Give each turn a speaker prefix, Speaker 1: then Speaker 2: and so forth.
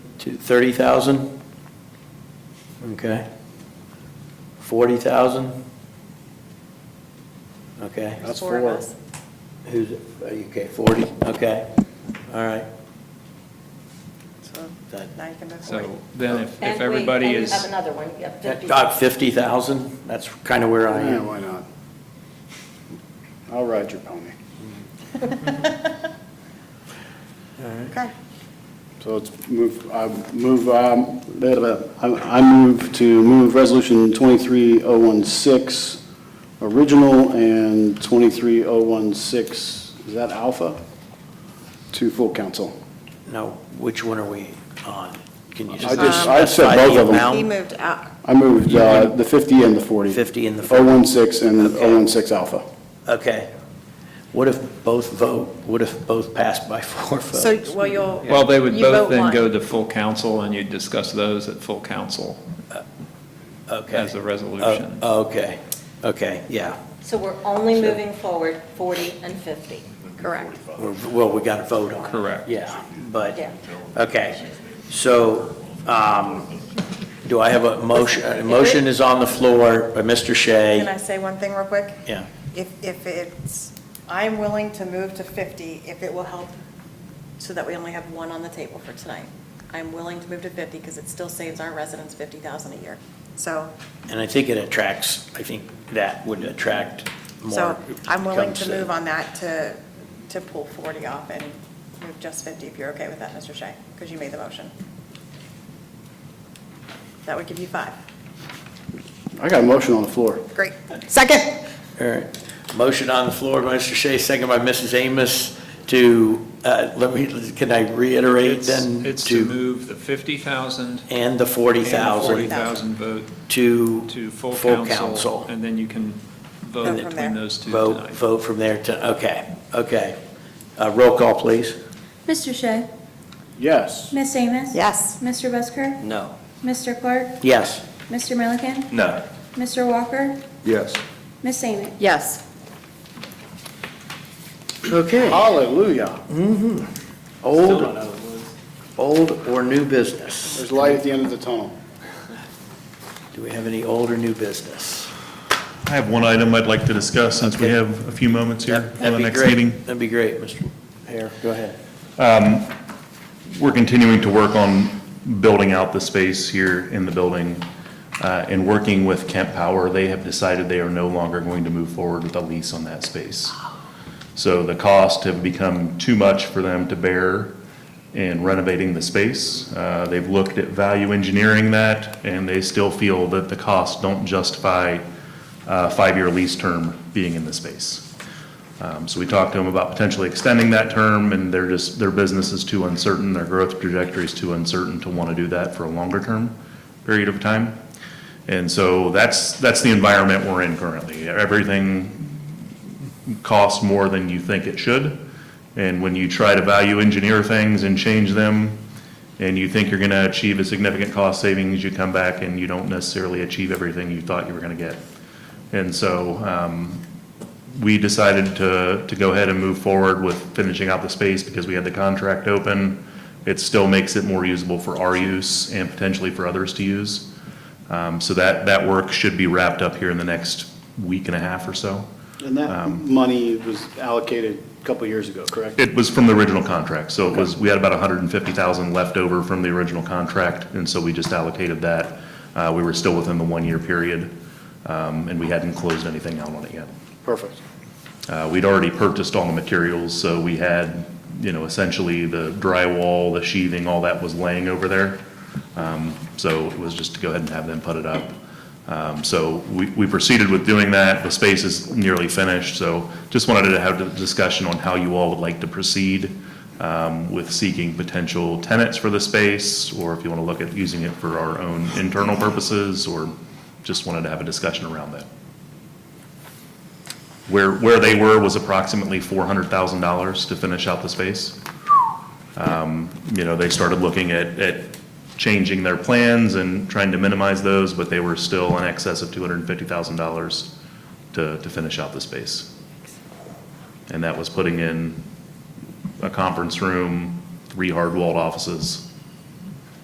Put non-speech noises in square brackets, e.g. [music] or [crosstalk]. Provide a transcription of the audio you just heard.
Speaker 1: to 30,000? Okay. 40,000? Okay.
Speaker 2: That's four of us.
Speaker 1: Who's, are you, okay, 40, okay, all right.
Speaker 2: So
Speaker 1: That-
Speaker 2: now you can move forward.
Speaker 3: So then if, if
Speaker 4: And wait,
Speaker 3: everybody
Speaker 4: And you have
Speaker 3: is,
Speaker 4: another one, you have
Speaker 1: That
Speaker 4: 50.
Speaker 1: got 50,000, that's kind of where I
Speaker 5: Yeah,
Speaker 1: am.
Speaker 5: why not? I'll ride your pony.
Speaker 2: Okay.
Speaker 5: So let's move, I move, um, blah, blah, blah. I I move to move Resolution 23016, original, and 23016, is that alpha? To full council.
Speaker 1: Now, which one are we on? Can you
Speaker 5: I
Speaker 1: just?
Speaker 5: just- I said
Speaker 1: specify
Speaker 5: both
Speaker 1: the
Speaker 5: of them.
Speaker 1: amount?
Speaker 2: He moved out,
Speaker 5: I moved uh, the 50 and the 40.
Speaker 1: 50 and the 40.
Speaker 5: 016 and
Speaker 1: Okay.
Speaker 5: 016 alpha.
Speaker 1: Okay. What if both vote, what if both pass by [laughs] four
Speaker 2: so,
Speaker 1: votes?
Speaker 2: well, you'll.
Speaker 3: well, they would
Speaker 2: you vote
Speaker 3: both then
Speaker 2: one.
Speaker 3: go to full council and you'd discuss those at full council
Speaker 1: Okay.
Speaker 3: as a
Speaker 1: Oh,
Speaker 3: resolution.
Speaker 1: Okay, okay, yeah.
Speaker 4: So we're only moving forward 40 and 50.
Speaker 2: Correct.
Speaker 1: We're- Well, we got to vote on it.
Speaker 3: Correct.
Speaker 1: Yeah, but,
Speaker 4: Yeah.
Speaker 1: okay. So um, do I have a motion? A motion is on the floor by Mr.
Speaker 2: Can I
Speaker 1: Shea.
Speaker 2: say one thing real quick?
Speaker 1: Yeah.
Speaker 2: If, if it's, I'm willing to move to 50 if it will help, so that we only have one on the table for tonight. I'm willing to move to 50 because it still saves our residents 50,000 a year. So,
Speaker 1: And I think it attracts, I think that would attract more.
Speaker 2: so I'm willing to
Speaker 1: comes
Speaker 2: move on that to, to pull 40 off and move just 50 if you're okay with that, Mr. Shea, because you made the motion. That would give you five.
Speaker 5: I got a motion on the floor.
Speaker 2: Great. Second.
Speaker 1: All right. Motion on the floor by Mr. Shea, second by Mrs. Amos to, uh, let me, can I reiterate
Speaker 3: It's
Speaker 1: then?
Speaker 3: it's to move the 50,000
Speaker 1: And the
Speaker 3: and
Speaker 1: 40,000
Speaker 3: 40,000 vote
Speaker 1: to.
Speaker 3: to full
Speaker 1: council.
Speaker 3: council. And then you can
Speaker 2: Vote from
Speaker 3: vote between
Speaker 2: there.
Speaker 3: those two
Speaker 1: Vote,
Speaker 3: tonight.
Speaker 1: vote from there to, okay, okay. Uh, Roll call, please.
Speaker 6: Mr. Shea?
Speaker 5: Yes.
Speaker 6: Miss Amos?
Speaker 2: Yes.
Speaker 6: Mr. Busker?
Speaker 1: No.
Speaker 6: Mr. Clark?
Speaker 1: Yes.
Speaker 6: Mr. Milliken?
Speaker 3: No.
Speaker 6: Mr. Walker?
Speaker 7: Yes.
Speaker 6: Miss Amos?
Speaker 2: Yes.
Speaker 1: Okay.
Speaker 5: Hallelujah.
Speaker 1: Old, old or new business?
Speaker 5: There's light at the end of the tunnel.
Speaker 1: Do we have any old or new business?
Speaker 8: I have one item I'd like to discuss since we
Speaker 1: Okay.
Speaker 8: have a few moments here for
Speaker 1: That'd
Speaker 8: the
Speaker 1: be
Speaker 8: next
Speaker 1: great.
Speaker 8: meeting.
Speaker 1: That'd be great, Mr. Hare, go ahead.
Speaker 8: We're continuing to work on building out the space here in the building. uh, And working with Kent Power, they have decided they are no longer going to move forward with a lease on that space. So the costs have become too much for them to bear in renovating the space. Uh, They've looked at value engineering that, and they still feel that the costs don't justify a five-year lease term being in the space. Um, So we talked to them about potentially extending that term, and they're just, their business is too uncertain, their growth trajectory is too uncertain to want to do that for a longer-term period of time. And so that's, that's the environment we're in currently. Everything costs more than you think it should, and when you try to value engineer things and change them, and you think you're going to achieve a significant cost savings, you come back and you don't necessarily achieve everything you thought you were going to get. And so um, we decided to, to go ahead and move forward with finishing out the space because we had the contract open. It still makes it more usable for our use and potentially for others to use. Um, So that, that work should be wrapped up here in the next week and a half or so.
Speaker 5: And that money was allocated a couple years ago, correct?
Speaker 8: It was from the original contract, so it was, we had about 150,000 left over from the original contract, and so we just allocated that. Uh, We were still within the one-year period, um, and we hadn't closed anything out on it yet.
Speaker 5: Perfect.
Speaker 8: Uh, We'd already purchased all the materials, so we had, you know, essentially the drywall, the sheathing, all that was laying over there. Um, So it was just to go ahead and have them put it up. Um, So we we proceeded with doing that. The space is nearly finished, so just wanted to have a discussion on how you all would like to proceed um, with seeking potential tenants for the space, or if you want to look at using it for our own internal purposes, or just wanted to have a discussion around that. Where, where they were was approximately $400,000 to finish out the space. Um, You know, they started looking at, at changing their plans and trying to minimize those, but they were still in excess of $250,000 to, to finish out the space. And that was putting in a conference room, three hard-walled offices,